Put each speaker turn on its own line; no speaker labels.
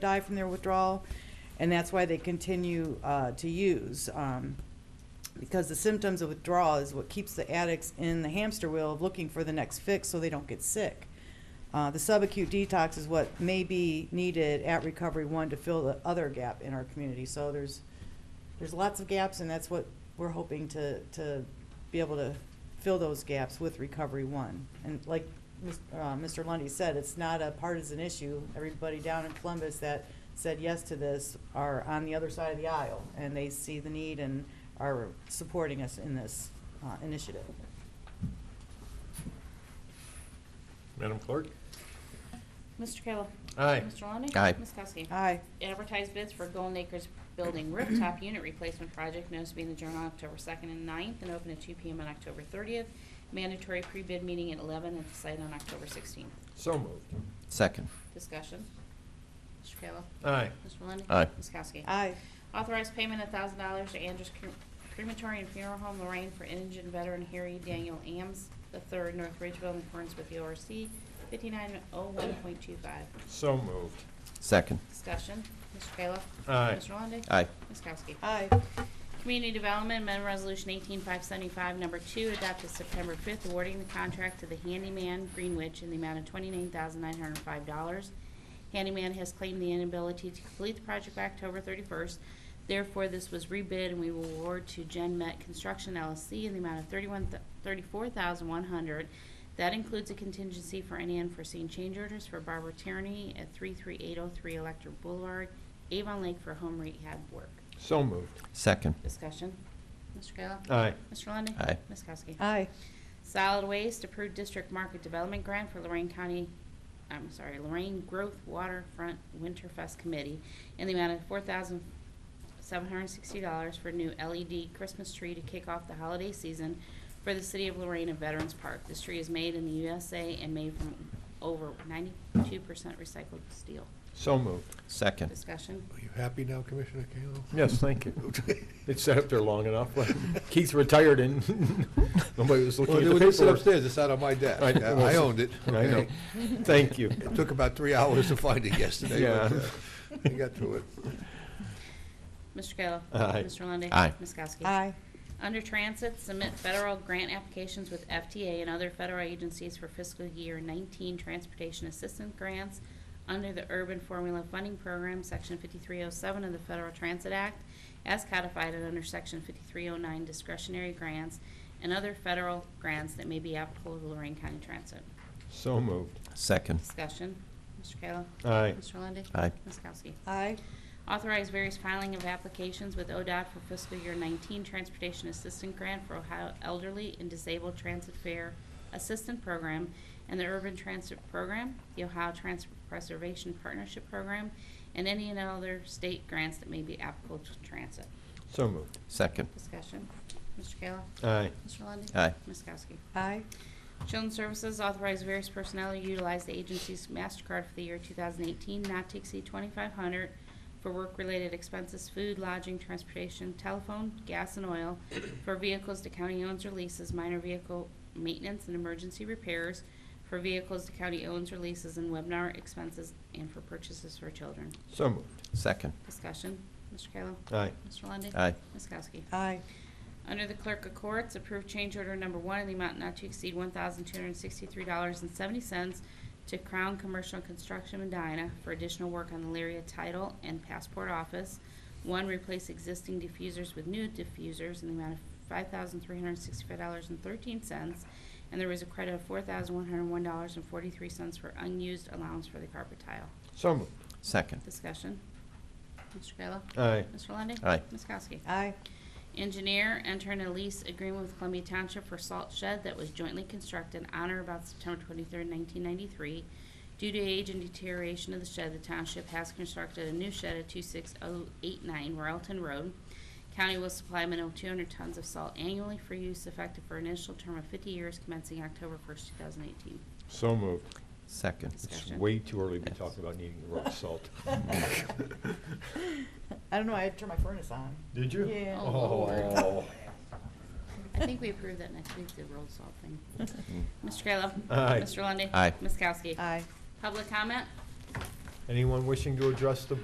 die from their withdrawal, and that's why they continue uh, to use. um, Because the symptoms of withdrawal is what keeps the addicts in the hamster wheel of looking for the next fix so they don't get sick. Uh, The subacute detox is what may be needed at Recovery One to fill the other gap in our community. So there's, there's lots of gaps, and that's what we're hoping to, to be able to fill those gaps with Recovery One. And like Mis- uh, Mr. Lundy said, it's not a partisan issue. Everybody down in Columbus that said yes to this are on the other side of the aisle, and they see the need and are supporting us in this uh, initiative.
Madam Clerk?
Mr. Kayla.
Aye.
Mr. Lundey.
Aye.
Ms. Kowski.
Aye.
Advertise bids for Golden Acres Building Rooftop Unit Replacement Project, notice to be in the Journal on October 2nd and 9th, and open at 2 PM on October 30th. Mandatory pre-bid meeting at 11 and site on October 16th.
So moved.
Second.
Discussion. Mr. Kayla.
Aye.
Mr. Lundey.
Aye.
Ms. Kowski.
Aye.
Authorize payment of thousand dollars to Andrews Cre- Crematory and Funeral Home Lorraine for indigent veteran Harry Daniel Ames III, North Ridgeville, in accordance with E the ORC 5901.25.
So moved.
Second.
Discussion. Mr. Kayla.
Aye.
Mr. Lundey.
Aye.
Ms. Kowski.
Aye.
Community Development Amendment Resolution 18575, number two, adopted September 5th, awarding the contract to the handyman Greenwich in the amount of $29,905. Handyman has claimed the inability to complete the project by October 31st. Therefore, this was rebid and we will award to Gen Met Construction LLC in the amount of 31 th- 34100 That includes a contingency for any unforeseen change orders for Barbara Tierney at 33803 Electric Boulevard, Avon Lake for home rehab work.
So moved.
Second.
Discussion. Mr. Kayla?
Aye.
Mr. Lundey?
Aye.
Ms. Kowski?
Aye.
Solid Waste approved district market development grant for Lorraine County, I'm sorry, Lorraine Growth Waterfront Winterfest Committee in the amount of four thousand seven hundred and sixty dollars for new LED Christmas tree to kick off the holiday season for the city of Lorraine and Veterans Park. This tree is made in the USA and made from over ninety-two percent recycled steel.
So moved.
Second.
Discussion.
Are you happy now, Commissioner Kayla?
Yes, thank you. It sat up there long enough. Keith retired and nobody was looking
Well,
at
they
the
would sit
paperwork.
upstairs, it's out on my desk.
I-
I I owned it.
I know.
okay?
Thank you.
It took about three hours to find it yesterday, but
Yeah.
uh, I got through it.
Mr. Kayla.
Aye.
Mr. Lundey.
Aye.
Ms. Kowski.
Aye.
Under Transit, submit federal grant applications with FTA and other federal agencies for fiscal year 19 transportation assistance grants under the Urban Formula Funding Program, Section 5307 of the Federal Transit Act, as codified and under Section 5309 discretionary grants and other federal grants that may be applicable to Lorraine County Transit.
So moved.
Second.
Discussion. Mr. Kayla.
Aye.
Mr. Lundey.
Aye.
Ms. Kowski.
Aye.
Authorize various filing of applications with ODOT for fiscal year 19 Transportation Assistant Grant for Ohio Elderly and Disabled Transit Fair Assistant Program and the Urban Transit Program, the Ohio Transit Preservation Partnership Program, and any and other state grants that may be applicable to transit.
So moved.
Second.
Discussion. Mr. Kayla?
Aye.
Mr. Lundey?
Uh, Aye.
Ms. Kowski?
Aye.
Children's Services authorized various personnel to utilize the agency's MasterCard for the year 2018, not to exceed 2,500 for work-related expenses, food, lodging, transportation, telephone, gas, and oil, for vehicles the county owns or leases, minor vehicle maintenance and emergency repairs, for vehicles the county owns or leases, and webinar expenses, and for purchases for children.
So moved.
Second.
Discussion, Mr. Kayla.
Aye.
Mr. Lundey.
Uh, Aye.
Ms. Kowski.
Aye.
Under the Clerk of Courts, approved change order number one in the amount not to exceed one thousand two hundred and sixty-three dollars and seventy cents to Crown Commercial Construction Medina for additional work on the Lyria title and passport office. One, replace existing diffusers with new diffusers in the amount of five thousand three hundred and sixty-five dollars and thirteen cents. And there was a credit of four thousand one hundred and one dollars and forty-three cents for unused allowance for the carpet tile.
So moved.
Second.
Discussion. Mr. Kayla.
Aye.
Mr. Lundey.
Aye.
Ms. Kowski.
Aye.
Engineer entered a lease agreement with Columbia Township for salt shed that was jointly constructed on or about September 23, nineteen ninety-three. Due to age and deterioration of the shed, the township has constructed a new shed at two six oh eight nine Royalton Road. County will supply a minimum of two hundred tons of salt annually for use effective for an initial term of fifty years commencing October first, two thousand eighteen.
So moved.
Second.
It's
Discussion.
way too early to be
Yes.
talking about needing rock salt.
I don't know, I had to turn my furnace on.
Did you?
Yeah.
Oh, Lord.
Oh.
I think we approved that next week, the rolled salt thing. Mr. Kayla.
Aye.
Mr. Lundey.
Aye.
Ms. Kowski.
Aye.
Public comment?
Anyone wishing to address the